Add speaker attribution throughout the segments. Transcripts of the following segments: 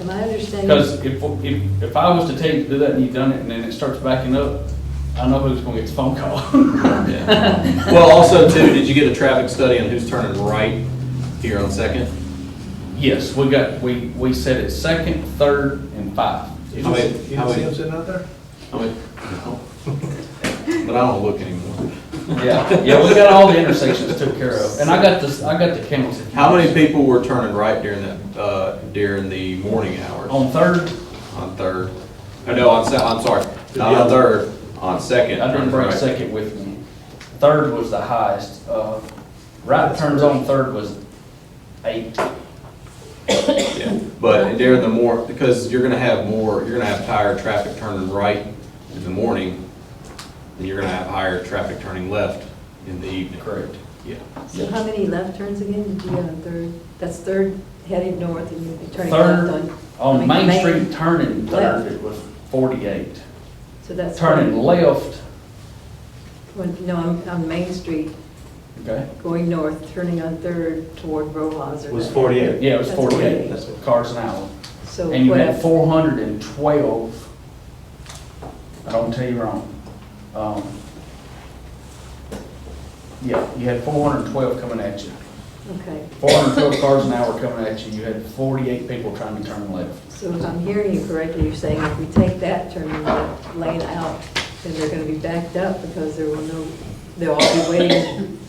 Speaker 1: Am I understanding?
Speaker 2: Because if, if, if I was to tell you to do that and you done it and then it starts backing up, I know who's gonna get the phone call.
Speaker 3: Yeah. Well, also too, did you get a traffic study on who's turning right here on Second?
Speaker 2: Yes, we got, we, we set it second, third, and five.
Speaker 4: You
Speaker 3: How
Speaker 4: don't
Speaker 3: many-
Speaker 4: see you
Speaker 3: how
Speaker 4: don't see
Speaker 3: many-
Speaker 4: him sitting out there?
Speaker 3: I went, no. But I don't look anymore.
Speaker 2: Yeah, yeah, we got all the intersections took care of, and I got this, I got the counts.
Speaker 3: How many people were turning right during that, uh, during the morning hours?
Speaker 2: On third,
Speaker 3: On Third? Oh, no, on Se, I'm sorry, not on Third, on Second.
Speaker 2: I didn't
Speaker 3: turning
Speaker 2: bring
Speaker 3: right.
Speaker 2: second with me. Third was the highest, uh, right turns on third was eight.
Speaker 3: Yeah. But during the more, because you're gonna have more, you're gonna have higher traffic turning right in the morning, and you're gonna have higher traffic turning left in the evening.
Speaker 2: Correct.
Speaker 3: Yeah.
Speaker 1: So how many left turns again did you have on Third? That's Third heading north and you'd be turning left
Speaker 2: Third,
Speaker 1: on. I
Speaker 2: on
Speaker 1: mean,
Speaker 2: Main Street turning
Speaker 1: Left.
Speaker 2: third, it was forty-eight.
Speaker 1: So that's.
Speaker 2: Turning left,
Speaker 1: When, no, on, on Main Street,
Speaker 2: okay,
Speaker 1: going north, turning on Third toward Rojas or.
Speaker 4: Was
Speaker 1: that.
Speaker 4: 48.
Speaker 2: yeah, it was
Speaker 1: That's
Speaker 2: forty-eight
Speaker 4: That's it.
Speaker 2: cars an hour.
Speaker 1: So
Speaker 2: And you
Speaker 1: what,
Speaker 2: had
Speaker 1: I-
Speaker 2: four hundred and twelve, I don't tell you wrong. Um, Yeah, you had four hundred and twelve coming at you.
Speaker 1: okay,
Speaker 2: Four hundred and twelve cars an hour coming at you, you had forty-eight people trying to turn left.
Speaker 1: so if I'm hearing you correctly, you're saying if we take that turning left lane out, then they're gonna be backed up because there will no, they'll all be waiting,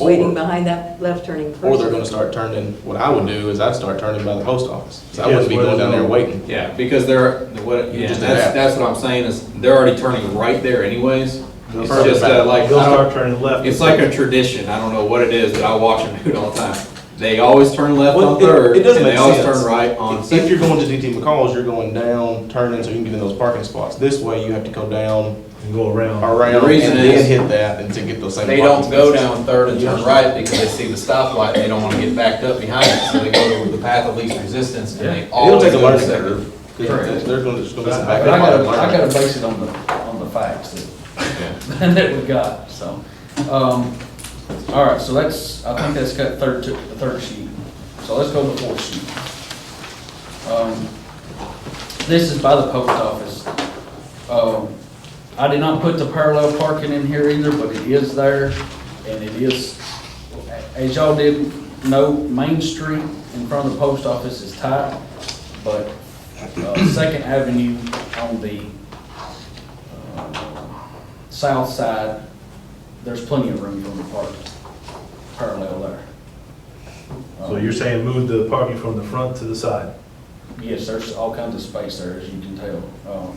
Speaker 1: waiting behind that left turning person.
Speaker 5: Or they're gonna start turning, what I would do is I'd start turning by the post office. 'cause I wouldn't be going down there waiting.
Speaker 3: Yeah, because they're, what,
Speaker 5: Yeah.
Speaker 3: that's, that's what I'm saying is, they're already turning right there anyways. It's
Speaker 4: Further
Speaker 3: just
Speaker 4: back.
Speaker 3: uh, like, I
Speaker 4: They'll start
Speaker 3: don't-
Speaker 4: turning left.
Speaker 3: it's like a tradition, I don't know what it is, but I watch them do it all the time. They always turn left on
Speaker 5: Well, it-
Speaker 3: Third,
Speaker 5: it
Speaker 3: and
Speaker 5: doesn't
Speaker 3: they
Speaker 5: make
Speaker 3: always
Speaker 5: sense.
Speaker 3: turn right on
Speaker 5: If you're
Speaker 3: Second.
Speaker 5: going to DT McCall's, you're going down, turning, so you can get in those parking spots. This way, you have to go down,
Speaker 4: And go around.
Speaker 5: around,
Speaker 3: The
Speaker 5: and
Speaker 3: reason
Speaker 5: then
Speaker 3: is-
Speaker 5: hit that, and to get those same.
Speaker 3: They don't
Speaker 5: parking
Speaker 3: go
Speaker 5: spaces.
Speaker 3: down Third and turn right because they see the stoplight, they don't wanna get backed up behind it, so they go to the path of least resistance, and they
Speaker 5: It'll
Speaker 3: always
Speaker 5: take
Speaker 3: go
Speaker 5: a
Speaker 3: to
Speaker 5: learning
Speaker 3: Second.
Speaker 5: curve. 'cause They're they're gonna just go
Speaker 4: But I-
Speaker 5: back.
Speaker 2: But I gotta, I gotta base it on the, on the facts that, that we got, so. Um, all right, so that's, I think that's got third, to- the third sheet. So let's go to the fourth sheet. Um, This is by the post office. Um, I did not put the parallel parking in here either, but it is there, and it is, as y'all did know, Main Street in front of the post office is tight, but uh, Second Avenue on the uh, south side, there's plenty of room for them to park parallel there.
Speaker 4: So you're saying move the parking from the front to the side?
Speaker 2: Um, Yes, there's all kinds of space there, as you can tell. Um,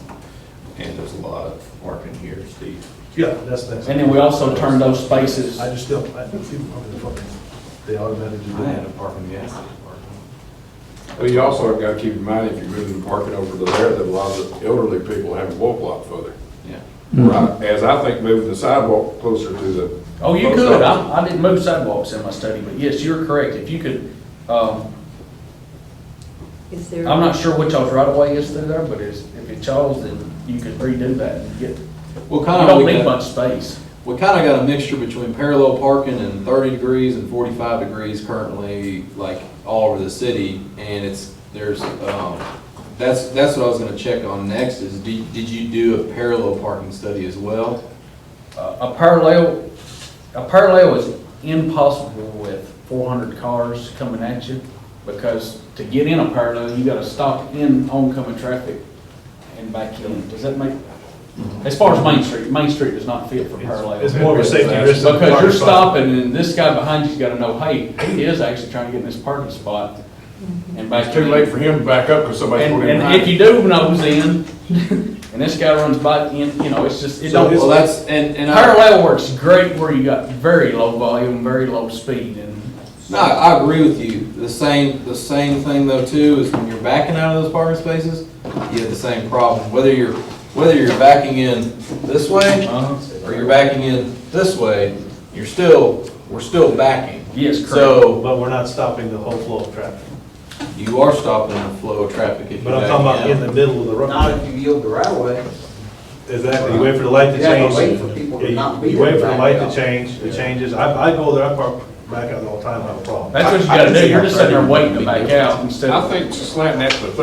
Speaker 3: And there's a lot of parking here, Steve.
Speaker 4: Yeah, that's next.
Speaker 2: And then we also turn those spaces,
Speaker 4: I just still, I think people park in the front. They automatically do
Speaker 3: I had a
Speaker 4: that.
Speaker 3: parking, yes.
Speaker 6: Well, you also have got to keep in mind, if you're moving parking over to there, that a lot of the elderly people have to walk a lot further.
Speaker 3: Yeah.
Speaker 6: Right, as I think moving the sidewalk closer to the.
Speaker 2: oh, you
Speaker 6: post
Speaker 2: could,
Speaker 6: office.
Speaker 2: I, I didn't move sidewalks in my study, but yes, you're correct. If you could, um,
Speaker 1: Is there?
Speaker 2: I'm not sure what y'all's right of way is through there, but it's, if it's y'all's, then you could redo that and get, you
Speaker 3: Well, kind of.
Speaker 2: don't need much space.
Speaker 3: We kind of got a mixture between parallel parking and thirty degrees and forty-five degrees currently, like, all over the city, and it's, there's, um, that's, that's what I was gonna check on next, is did, did you do a parallel parking study as well?
Speaker 2: Uh, A parallel, a parallel is impossible with four hundred cars coming at you, because to get in a parallel, you gotta stop in oncoming traffic and back in. Does that make, as far as Main Street, Main Street does not fit for parallel.
Speaker 4: It's more of a safety risk. than
Speaker 2: Because you're
Speaker 4: parking spot.
Speaker 2: stopping, and this guy behind you's gotta know, hey, he is actually trying to get in this parking spot and back
Speaker 6: It's too
Speaker 2: in.
Speaker 6: late for him to back up because somebody's
Speaker 2: And,
Speaker 6: going in
Speaker 2: and if
Speaker 6: behind.
Speaker 2: you do nose in, and this guy runs by, in, you know, it's just, it don't.
Speaker 3: Well, that's, and, and I.
Speaker 2: Parallel works great where you got very low volume, very low speed, and
Speaker 3: No, I agree with you. The same, the same thing though too, is when you're backing out of those parking spaces, you have the same problem. Whether you're, whether you're backing in this way,
Speaker 2: Uh-huh.
Speaker 3: or you're backing in this way, you're still, we're still backing.
Speaker 2: yes, correct.
Speaker 3: So
Speaker 4: But we're not stopping the whole flow of traffic.
Speaker 3: you are stopping the flow of traffic if you're
Speaker 4: But I'm talking about in
Speaker 3: backing
Speaker 4: the
Speaker 3: out.
Speaker 4: middle of the
Speaker 7: Not
Speaker 4: road.
Speaker 7: if you yield the right of way.
Speaker 4: Exactly, you wait for the light to
Speaker 7: You have
Speaker 4: change.
Speaker 7: to wait for people to
Speaker 4: Yeah,
Speaker 7: not
Speaker 4: You
Speaker 7: be
Speaker 4: you wait for the
Speaker 7: there.
Speaker 4: light to change, it changes. I, I go there, I park back out all the time, I have a problem.
Speaker 2: That's what you
Speaker 5: I- I
Speaker 2: gotta
Speaker 5: can
Speaker 2: do,
Speaker 5: see
Speaker 2: you're
Speaker 5: how
Speaker 2: just sitting there
Speaker 5: parallel
Speaker 2: waiting to
Speaker 5: would be
Speaker 2: back out instead of.
Speaker 6: I think slanting that to the